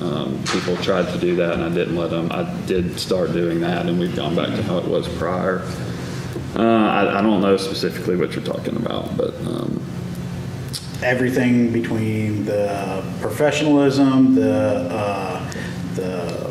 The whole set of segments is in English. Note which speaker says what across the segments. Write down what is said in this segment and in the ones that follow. Speaker 1: Um, people tried to do that and I didn't let them. I did start doing that and we've gone back to how it was prior. Uh, I, I don't know specifically what you're talking about, but, um,
Speaker 2: everything between the professionalism, the, uh, the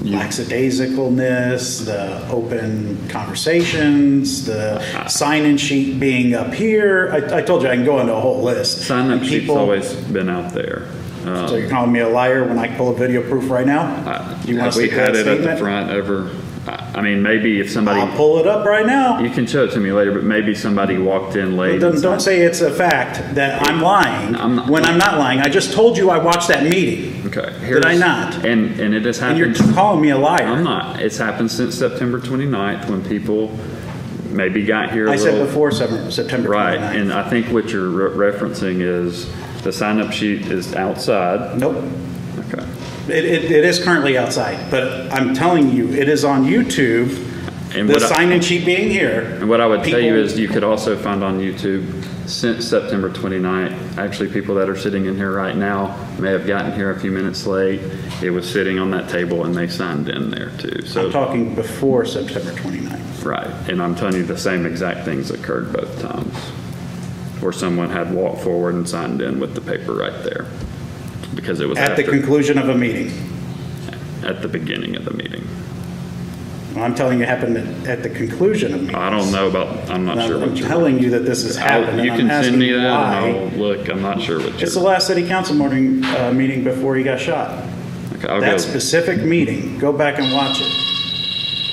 Speaker 2: lackadaisicalness, the open conversations, the sign-in sheet being up here. I, I told you, I can go into a whole list.
Speaker 1: sign up sheet's
Speaker 2: People-
Speaker 1: always been out there. Uh,
Speaker 2: So you're calling me a liar when I pull a video proof right now? Do you
Speaker 1: have
Speaker 2: want to
Speaker 1: Uh, we
Speaker 2: stick to
Speaker 1: had
Speaker 2: that
Speaker 1: it at the
Speaker 2: statement?
Speaker 1: front ever? I, I mean, maybe if somebody,
Speaker 2: I'll pull it up right now.
Speaker 1: you can show it to me later, but maybe somebody walked in late.
Speaker 2: Don't,
Speaker 1: and
Speaker 2: don't say it's a fact that I'm lying,
Speaker 1: I'm not-
Speaker 2: when I'm not lying. I just told you I watched that meeting,
Speaker 1: Okay.
Speaker 2: Did I
Speaker 1: here's-
Speaker 2: not?
Speaker 1: And, and it has
Speaker 2: and you're
Speaker 1: happened.
Speaker 2: calling me a liar.
Speaker 1: I'm not. It's happened since September 29th when people maybe got here a
Speaker 2: I
Speaker 1: little.
Speaker 2: said before September 29th.
Speaker 1: Right, and I think what you're re- referencing is the sign-up sheet is outside.
Speaker 2: Nope.
Speaker 1: Okay.
Speaker 2: It, it, it is currently outside, but I'm telling you, it is on YouTube,
Speaker 1: And
Speaker 2: the
Speaker 1: what I-
Speaker 2: sign-in sheet being here.
Speaker 1: And what I would tell you
Speaker 2: People-
Speaker 1: is you could also find on YouTube since September 29th, actually people that are sitting in here right now may have gotten here a few minutes late. It was sitting on that table and they signed in there too.
Speaker 2: I'm
Speaker 1: So,
Speaker 2: talking before September 29th.
Speaker 1: right, and I'm telling you the same exact things occurred both times. Where someone had walked forward and signed in with the paper right there. Because it was
Speaker 2: At the
Speaker 1: after,
Speaker 2: conclusion of a meeting.
Speaker 1: at the beginning of the meeting.
Speaker 2: Well, I'm telling you, it happened at- at the conclusion of meetings.
Speaker 1: I don't know about, I'm not sure
Speaker 2: I'm
Speaker 1: what you're.
Speaker 2: telling you that this has
Speaker 1: I'll-
Speaker 2: happened,
Speaker 1: You
Speaker 2: and
Speaker 1: can
Speaker 2: I'm
Speaker 1: send me
Speaker 2: asking
Speaker 1: that and
Speaker 2: why.
Speaker 1: I'll look, I'm not sure what
Speaker 2: It's the
Speaker 1: you're.
Speaker 2: last city council morning, uh, meeting before he got shot.
Speaker 1: Okay, I'll
Speaker 2: That
Speaker 1: go-
Speaker 2: specific meeting, go back and watch it.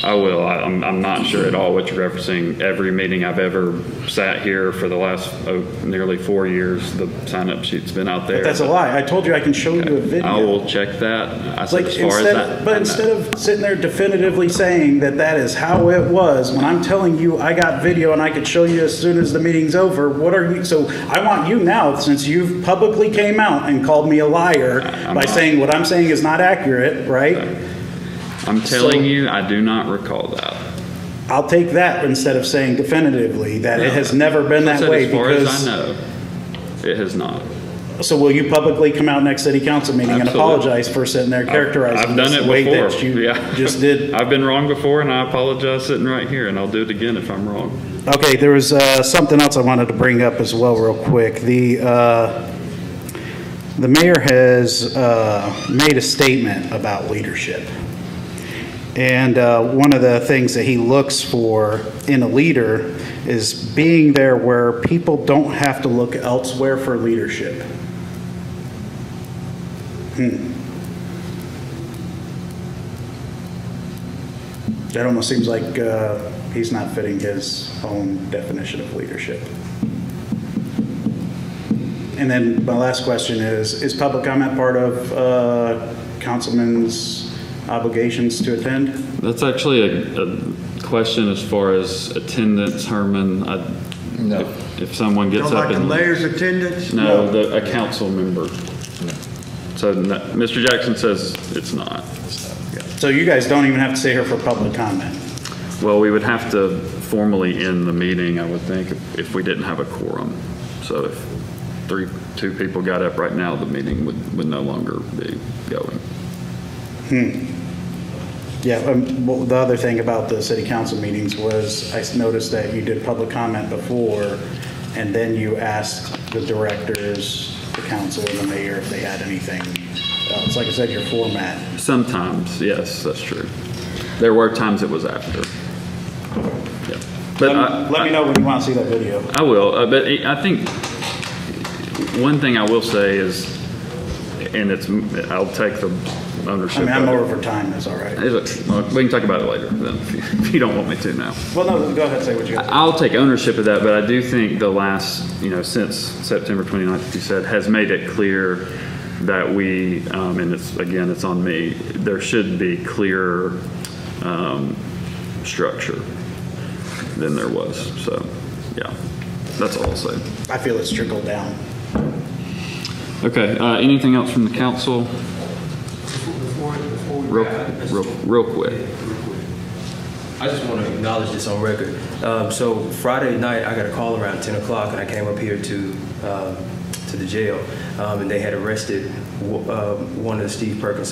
Speaker 1: I will. I- I'm, I'm not sure at all what you're referencing. Every meeting I've ever sat here for the last oh, nearly four years, the sign-up sheet's been out there.
Speaker 2: That's a lie. I told you I can show you a video.
Speaker 1: I will check that. I said
Speaker 2: Like
Speaker 1: as far as
Speaker 2: instead,
Speaker 1: that.
Speaker 2: but instead of sitting there definitively saying that that is how it was, when I'm telling you I got video and I could show you as soon as the meeting's over, what are you? So I want you now, since you've publicly came out and called me a liar
Speaker 1: I'm
Speaker 2: by
Speaker 1: not.
Speaker 2: saying what I'm saying is not accurate, right?
Speaker 1: I'm telling
Speaker 2: so-
Speaker 1: you, I do not recall that.
Speaker 2: I'll take that instead of saying definitively that it has never been
Speaker 1: I
Speaker 2: that
Speaker 1: said
Speaker 2: way
Speaker 1: as far as
Speaker 2: because.
Speaker 1: I know, it has not.
Speaker 2: So will you publicly come out next city council meeting and
Speaker 1: Absolutely.
Speaker 2: apologize for sitting there
Speaker 1: I've
Speaker 2: characterizing
Speaker 1: done
Speaker 2: this
Speaker 1: it
Speaker 2: the way
Speaker 1: before.
Speaker 2: that you
Speaker 1: Yeah.
Speaker 2: just did?
Speaker 1: I've been wrong before and I apologize sitting right here and I'll do it again if I'm wrong.
Speaker 2: Okay, there was uh, something else I wanted to bring up as well, real quick. The, uh, the mayor has uh, made a statement about leadership. And uh, one of the things that he looks for in a leader is being there where people don't have to look elsewhere for leadership. That almost seems like uh, he's not fitting his own definition of leadership. And then my last question is, is public comment part of uh, councilman's obligations to attend?
Speaker 1: That's actually a, a question as far as attendance, Herman. I,
Speaker 3: No.
Speaker 1: if- If someone gets
Speaker 3: Don't
Speaker 1: up
Speaker 3: like the
Speaker 1: and.
Speaker 3: mayor's attendance?
Speaker 1: No, the, a council member. So, no- Mr. Jackson says it's not.
Speaker 2: So you guys don't even have to stay here for public comment.
Speaker 1: Well, we would have to formally end the meeting, I would think, if- if we didn't have a quorum. So if three, two people got up right now, the meeting would, would no longer be going.
Speaker 2: Yeah, um, well, the other thing about the city council meetings was I noticed that you did public comment before, and then you asked the directors, the council, and the mayor if they had anything. Uh, It's like I said, your format.
Speaker 1: Sometimes, yes, that's true. There were times it was after. Yeah. But I-
Speaker 2: Um, Let me know when you want to see that video.
Speaker 1: I will, uh, but I I think one thing I will say is, and it's, I'll take the
Speaker 2: I
Speaker 1: ownership.
Speaker 2: mean, I'm
Speaker 1: of it.
Speaker 2: over for time, that's all right.
Speaker 1: Is it- well, We can talk about it later, then, if you don't want me to now.
Speaker 2: Well, no, go ahead and say what you got.
Speaker 1: I'll take ownership of that, but I do think the last, you know, since September 29th, you said, has made it clear that we, um, and it's, again, it's on me, there should be clearer um, structure than there was. So, yeah, that's all I'll say.
Speaker 2: I feel it's trickled down.
Speaker 1: Okay, uh, anything else from the council?
Speaker 4: Before, before we
Speaker 1: Real,
Speaker 4: wrap, Mr.
Speaker 1: real, real quick.
Speaker 4: I just want to acknowledge this on record. Um, So Friday night, I got a call around 10 o'clock, and I came up here to, um, to the jail, um, and they had arrested w- uh, one of Steve Perkins'